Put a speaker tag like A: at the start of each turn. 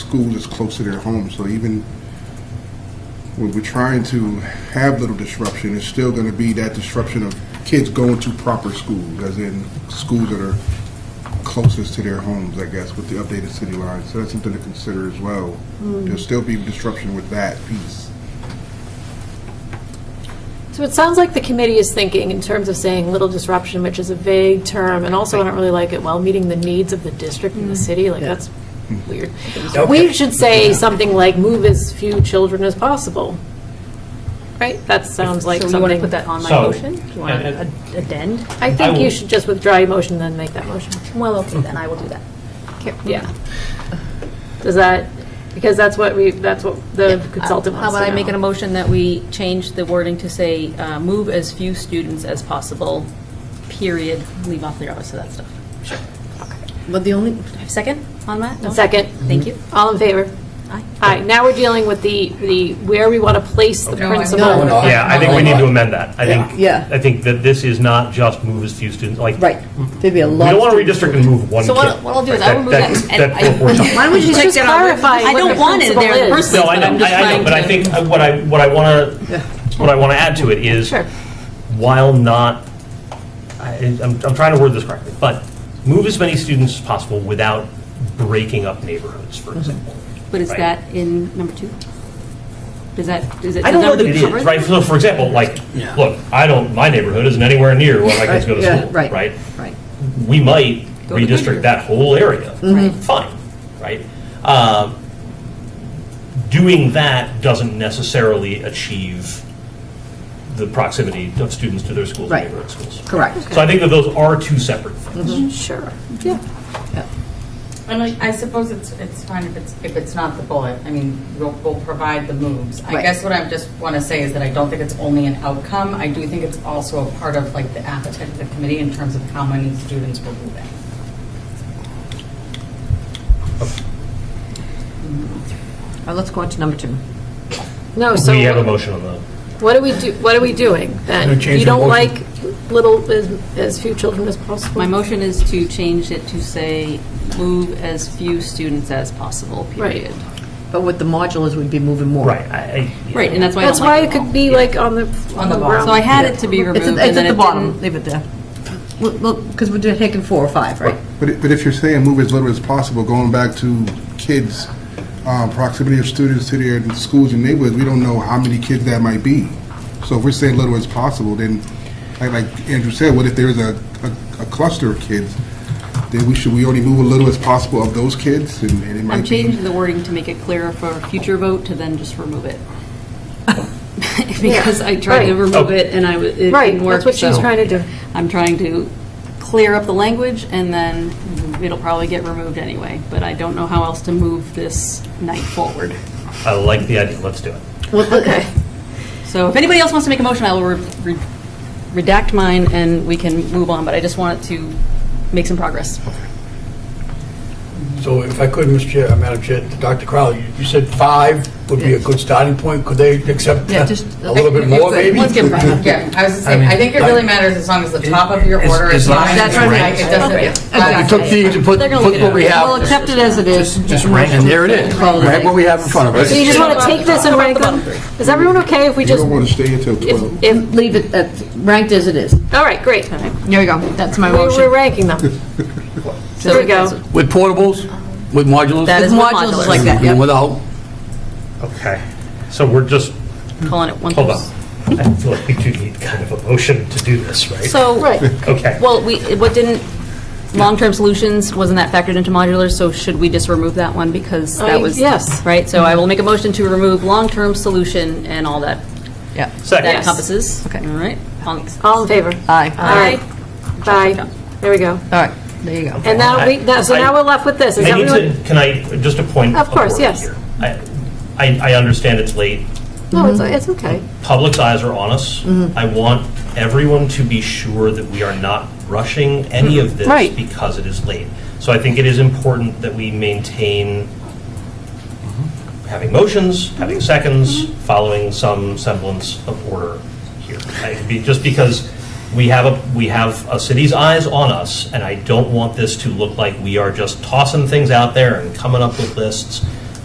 A: school is close to their home, so even when we're trying to have little disruption, it's still going to be that disruption of kids going to proper schools, as in schools that are closest to their homes, I guess, with the updated city line. So that's something to consider as well. There'll still be disruption with that piece.
B: So it sounds like the committee is thinking in terms of saying little disruption, which is a vague term, and also I don't really like it, while meeting the needs of the district and the
C: Mm.
B: city, like, that's weird. We should say something like, move as few children as possible, right? That sounds like
C: So you want to
B: something.
C: put that on my
D: So,
C: motion? Do you want
D: and-
C: to addend?
B: I
D: I
B: think you
D: will-
B: should just withdraw your motion, then make that motion.
C: Well, okay, then I will do that.
B: Yeah. Does that, because that's what we, that's what the consultant
C: Uh, How
B: wants to know.
C: about I make an motion that we change the wording to say, uh, move as few students as possible, period, leave off the rest of that stuff.
E: But the only,
C: Second on that? No?
B: Second.
C: Thank you.
B: All in favor?
C: Aye.
B: All right, now we're dealing with the, the, where we want to place the principal.
E: No, no,
D: Yeah, I think we need to amend that. I
E: Yeah.
D: think, I think that this is not just move as few students, like,
E: right, there'd be a
D: we
E: lot.
D: don't want to redistrict and move one kid.
C: So what- what I'll do is I will move that and I-
D: we're talking
E: Why would you
B: Just
E: just get on with it?
B: clarify
C: I
B: what
C: don't
B: the
C: want it there in the
B: principle is.
C: first place,
D: No, I
C: but I'm
D: know,
C: just
D: I I
C: trying
D: know,
C: to.
D: but I think uh, what I, what I want to, what I want to add to it is,
B: Sure.
D: while not, I- I'm, I'm trying to word this correctly, but move as many students as possible without breaking up neighborhoods,
E: Mm-hmm.
D: for example.
C: But is
D: Right.
C: that in number two? Does that, is it?
D: I don't
C: does
D: know that
C: number
D: it
C: two cover
D: is, right? So for example, like, look, I don't, my neighborhood isn't anywhere near where my kids go to
E: Yeah,
D: school,
E: right,
D: right?
E: Right.
D: we might
C: Go to Goodyear.
D: redistrict that whole area.
C: Mm-hmm. Right.
D: Fine, right? Um, Doing that doesn't necessarily achieve the proximity of students to their schools and
E: Right.
D: neighborhood schools.
E: Correct.
D: So I think that those are two separate things.
B: Sure.
F: And I I suppose it's, it's fine if it's, if it's not the bullet. I mean, we'll, we'll provide the moves. I
E: Right.
F: guess what I just want to say is that I don't think it's only an outcome. I do think it's also a part of like the appetite of the committee in terms of how many students we're moving.
E: let's go on to number two.
B: No, so
D: We have a motion on the,
B: what are we do, what are we doing then? You don't like little, as, as few children as possible?
C: My motion is to change it to say, move as few students as possible,
B: Right.
C: period.
E: But with the modulars, we'd be moving more.
D: right. I- I-
C: Right, and that's why I don't
B: That's why
C: like
B: it
C: it all.
B: could be like on the, on the
F: the
B: ground.
F: bottom.
C: So I had it to be removed
E: It's
C: and
E: at, it's
C: then
E: at the
C: it
E: bottom,
C: didn't.
E: leave it there. Look, because we're taking four or five, right?
A: But, it- but if you're saying move as little as possible, going back to kids, um, proximity of students to their schools and neighborhoods, we don't know how many kids that might be. So if we're saying little as possible, then, like, like Andrew said, what if there's a, a, a cluster of kids? Then we should, we only move a little as possible of those kids, and, and it might
C: I'm
A: be.
C: changing the wording to make it clearer for future vote to then just remove it. Because I tried to
B: right. Oh.
C: remove it and I, wa- it didn't work.
B: Right, that's what she's
C: so
B: trying to do.
C: I'm trying to clear up the language and then it'll probably get removed anyway. But I don't know how else to move this night forward.
D: I like the idea, let's do it.
B: Okay.
C: So if anybody else wants to make a motion, I will re- re- redact mine and we can move on. But I just wanted to make some progress.
G: So if I could, Mr. Chair, uh, Madam Chair, Dr. Crowley, you- you said five would be a good starting point. Could they accept
E: Yeah,
G: uh,
E: just-
G: a little bit more, maybe?
C: Let's give it
F: Yeah, I was just saying,
G: mean,
F: I think it
G: like-
F: really matters as long as the top of your
G: As-
F: order
G: as
F: is
G: long
F: fine.
G: as it's
F: It doesn't-
G: ranked.
F: It doesn't.
C: Okay.
G: You took these and put
C: They're gonna
G: put
C: look at
G: what we
C: it.
G: have.
C: We'll accept it as it is.
G: Just- Just rank, and there it is. Right what we have in front of us.
B: So you just want to take this and rank them? Is everyone okay if we
A: You
B: just,
A: don't want to stay until twelve.
B: if, if,
E: Leave it at, ranked as it is.
B: all right, great.
E: There we go, that's my
B: We're we're
E: motion.
B: ranking them. There we go.
G: With portables, with modulars.
C: That is
E: With
C: what
E: modulars
C: modulus
E: like that,
G: and
E: yeah.
G: Without.
D: Okay. So we're just,
C: Calling it one.
D: hold on. I feel like we do need kind of a motion to do this, right?
C: So.
B: Right.
D: Okay.
C: Well, we, what didn't, long-term solutions, wasn't that factored into modular, so should we just remove that one because
B: I-
C: that was?
B: yes.
C: Right, so I will make a motion to remove long-term solution and all that,
E: Yeah.
C: that
D: Second.
C: encompasses. Okay. All right. All-
B: All in favor? All
E: Aye,
B: right. Bye. There we go.
E: all right, there you go.
B: And now we, now- so now we're left with this. Is
D: Oh, I need
B: everyone?
D: to, can I, just a point?
B: Of course,
D: order
B: yes.
D: here. I, I I understand it's late.
B: No, it's, it's okay.
D: Public's eyes are on us. I want everyone to be sure that we are not rushing any of this
E: Right.
D: because it is late. So I think it is important that we maintain having motions, having seconds, following some semblance of order here. I- be- Just because we have a, we have a city's eyes on us, and I don't want this to look like we are just tossing things out there and coming up with lists.